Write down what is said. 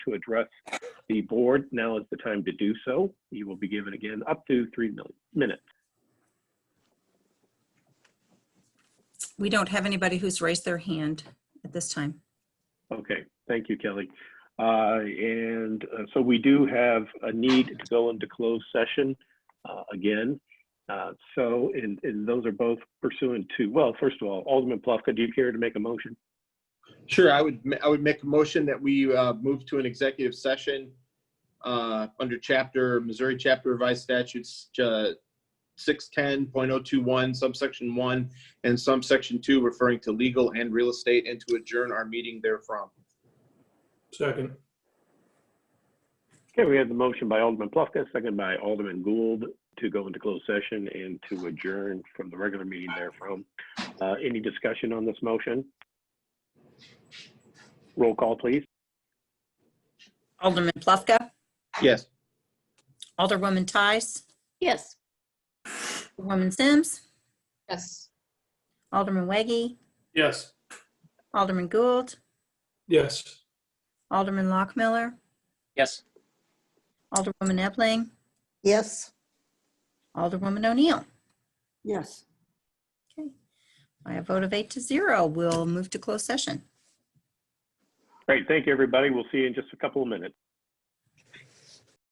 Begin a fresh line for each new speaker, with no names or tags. to address the board, now is the time to do so. You will be given again up to three mil- minutes.
We don't have anybody who's raised their hand at this time.
Okay, thank you, Kelly. Uh, And uh, so we do have a need to go into closed session uh, again. Uh, So, and and those are both pursuant to, well, first of all, Alderman Plufka, do you care to make a motion?
Sure, I would, I would make a motion that we uh, move to an executive session uh, under chapter, Missouri Chapter Revised Statutes, uh, 610.021, subsection 1, and subsection 2, referring to legal and real estate, and to adjourn our meeting therefrom.
Second.
Okay, we have the motion by Alderman Plufka, second by Alderman Gould to go into closed session and to adjourn from the regular meeting therefrom. Uh, Any discussion on this motion? Roll call, please.
Alderman Plufka,
Yes.
Alderwoman Tice,
Yes.
Alderwoman Sims,
Yes.
Alderman Waggy,
Yes.
Alderman Gould,
Yes.
Alderman Lockmiller,
Yes.
Alderwoman Ebling,
Yes,
Alderwoman O'Neill.
yes.
By a vote of eight to zero, we'll move to closed session.
Great, thank you, everybody. We'll see you in just a couple of minutes.